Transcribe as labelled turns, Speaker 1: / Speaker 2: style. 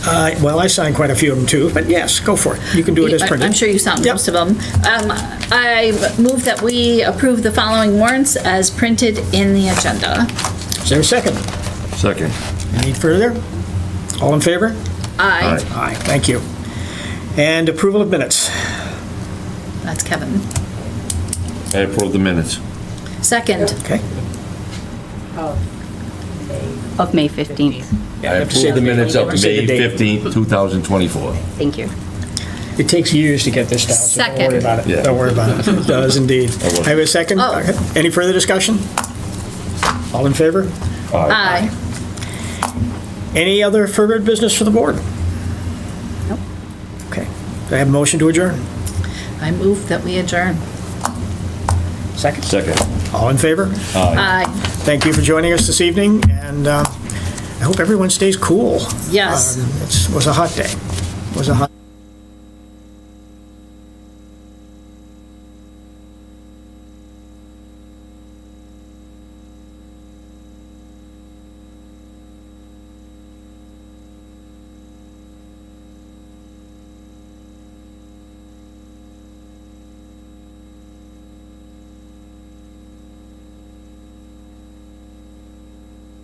Speaker 1: Uh, Well, I signed quite a few of them too, but yes, go for it. You can do it as
Speaker 2: I-
Speaker 1: printed.
Speaker 2: I'm sure you saw
Speaker 1: Yep.
Speaker 2: most of them. Um, I move that we approve the following warrants as printed in the agenda.
Speaker 1: Is there a second?
Speaker 3: Second.
Speaker 1: Any further? All in favor?
Speaker 2: I,
Speaker 3: Aye.
Speaker 1: Aye, thank you. And approval of minutes.
Speaker 2: that's Kevin.
Speaker 3: I approve the minutes.
Speaker 2: Second,
Speaker 1: Okay.
Speaker 4: Of May 15th.
Speaker 3: I
Speaker 1: have to say
Speaker 3: approve
Speaker 1: the-
Speaker 3: the minutes of
Speaker 1: you have to say the
Speaker 3: May
Speaker 1: date.
Speaker 3: 15th, 2024.
Speaker 4: Thank you.
Speaker 1: It takes years to get this down, so don't worry
Speaker 4: Second.
Speaker 1: about
Speaker 3: Yeah.
Speaker 1: it. Don't worry about it. It does indeed.
Speaker 3: I will.
Speaker 1: I have a second?
Speaker 2: Oh.
Speaker 1: Okay. Any further discussion? All in favor?
Speaker 2: aye.
Speaker 1: Any other further business for the board?
Speaker 4: Nope.
Speaker 1: Okay. Do I have a motion to adjourn?
Speaker 2: I move that we adjourn.
Speaker 1: Second.
Speaker 3: Second.
Speaker 1: All in favor?
Speaker 2: Aye.
Speaker 1: Thank you for joining us this evening, and uh, I hope everyone stays cool.
Speaker 2: Yes.
Speaker 1: Um, It was a hot day. It was a hot.